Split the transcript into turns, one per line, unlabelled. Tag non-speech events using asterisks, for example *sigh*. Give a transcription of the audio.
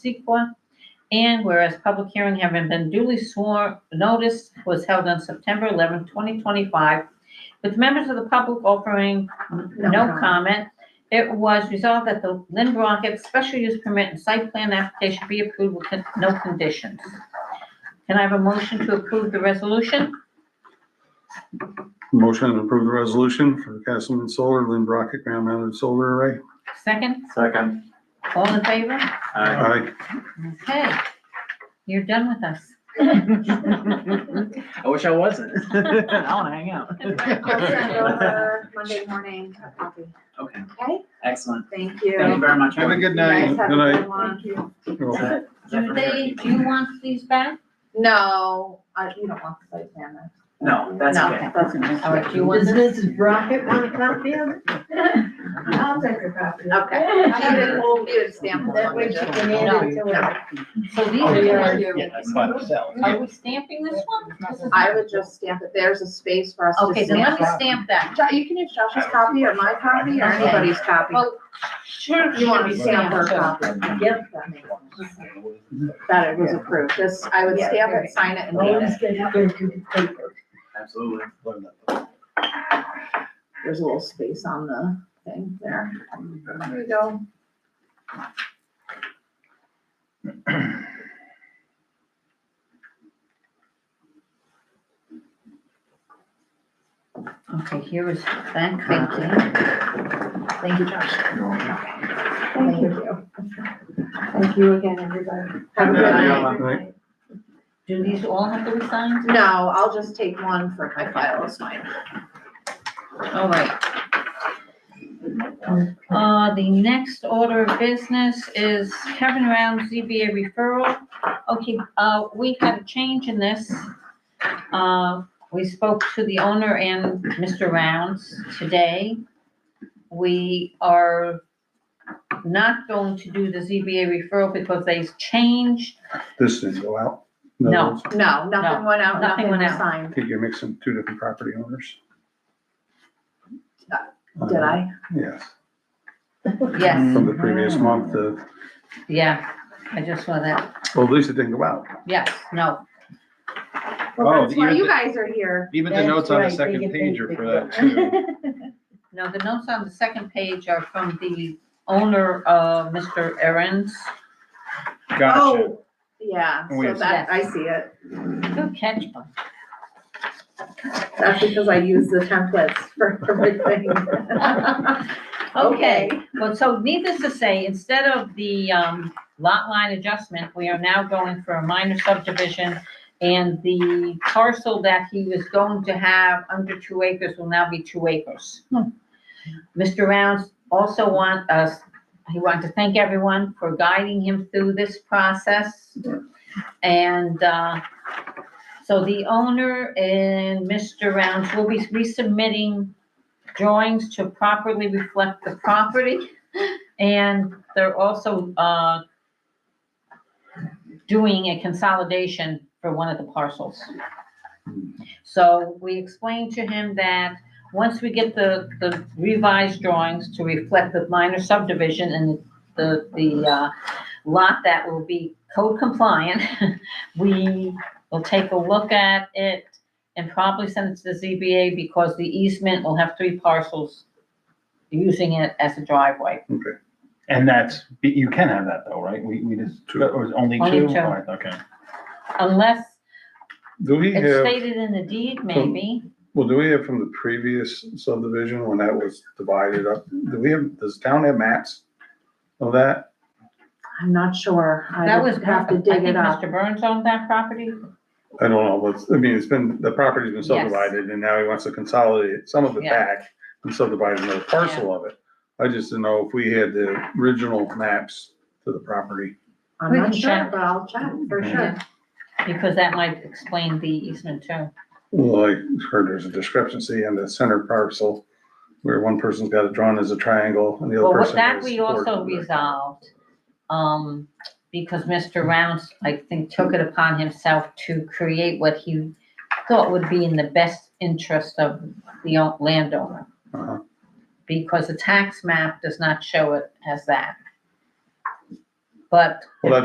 SEQA. And whereas public hearing having been duly sworn, notice was held on September 11, 2025, with members of the public offering no comment. It was resolved that the Lynn Brockett special use permit and site plan application be approved with con- no conditions. Can I have a motion to approve the resolution?
Motion to approve the resolution for Castleman Solar, Lynn Brockett ground mounted solar array.
Second,
Second.
all in favor?
Aye.
*laughs* Aye.
Okay, you're done with us.
I wish
*laughs*
I wasn't. I wanna hang out.
I'll send over
*laughs*
Monday morning a copy.
Okay,
Okay,
excellent.
thank
Thank you
you.
very much.
Have a good
You guys
night.
have a
Good night.
good one.
Well,
Do they, do you want these back?
No, I, you don't want the site plan. then.
No, that's
No.
okay.
All right, do you want
Does
this?
Mrs. Brockett want a copy of it?
I'll take your copy. Okay. I need a whole good stamp.
That way she can add it to it.
So these
Oh,
are
yeah.
yours. Are we stamping this one? This is-
I would just stamp it. There's a space for us to stamp.
Okay, then let me
it.
stamp that.
Jo- You can use Josh's copy or my copy or
Okay.
anybody's copy.
Well, Sure.
You want
should
to
be
stamp her
stamped, so-
copy. Yep. That it was approved. This, I would stamp it, sign it and date it.
Always get it into the paper.
Absolutely.
There's a little space on the thing there. There you go.
Okay, here is that copy.
Thank you, Josh.
Thank you. Thank you again, everybody.
Have a good night.
Right.
Do these all have to be signed?
No, I'll just take one for my file, it's mine.
All right. Uh, the next order of business is Kevin Round ZBA referral. Okay, uh, we had a change in this. Uh, we spoke to the owner and Mr. Rounds today. We are not going to do the ZBA referral because they've changed.
This didn't go out.
No.
No, nothing went out,
No,
nothing
nothing went
was
out.
I
signed.
think you're mixing two different property owners. Uh,
Did I?
Yes,
Yes,
from the previous month, uh,
yeah, I just saw that.
well, at least it didn't go out.
Yes, no,
Well,
Oh,
that's why
even
you
the-
guys are here.
Even the
That's
notes on the
right, they
second
get
page
paid
are
big
for that too.
*laughs*
no, the notes on the second page are from the owner, uh, Mr. Aaron's.
Gotcha.
Oh, yeah,
Wait a
so that, I see it.
Good catch. Bob.
That's because I use the templates for *laughs* everything.
*laughs* Okay, well, so needless to say, instead of the um, lot line adjustment, we are now going for a minor subdivision. And the parcel that he was going to have under two acres will now be two acres. Mr. Rounds also want us, he wanted to thank everyone for guiding him through this process. And uh, so the owner and Mr. Rounds will be resubmitting drawings to properly reflect the property. And they're also, uh, doing a consolidation for one of the parcels. So we explained to him that once we get the, the revised drawings to reflect the minor subdivision and the, the, uh, lot that will be code compliant, *laughs* we will take a look at it and probably send it to the ZBA because the easement will have three parcels using it as a driveway.
And that's, you can have that though, right? We, we just,
Two.
it was only
Only
two?
two.
All right, Okay.
Unless
Do we
it's
have,
stated in the deed, maybe.
well, do we have from the previous subdivision when that was divided up? Do we have, does town have maps of that?
I'm not sure. I
That was,
would have to
I
dig
think
it up.
Mr. Burns owned that property.
I don't know, but, it's- I mean, it's been, the property's been
Yes.
subdivided and now he wants to consolidate some of it
Yeah.
back and subdivide another parcel of it. I just didn't know if we had the original maps to the property.
I'm
We
not
can
sure,
check.
but I'll check for sure.
Because that might explain the easement too.
Well, I heard there's a discrepancy on the center parcel where one person's got it drawn as a triangle and the
Well,
other
what-
person
that
is
we also
ordered.
resolved, um, because Mr. Rounds, I think, took it upon himself to create what he thought would be in the best interest of the o- landowner.
Uh-huh.
Because the tax map does not show it as that. But
Well,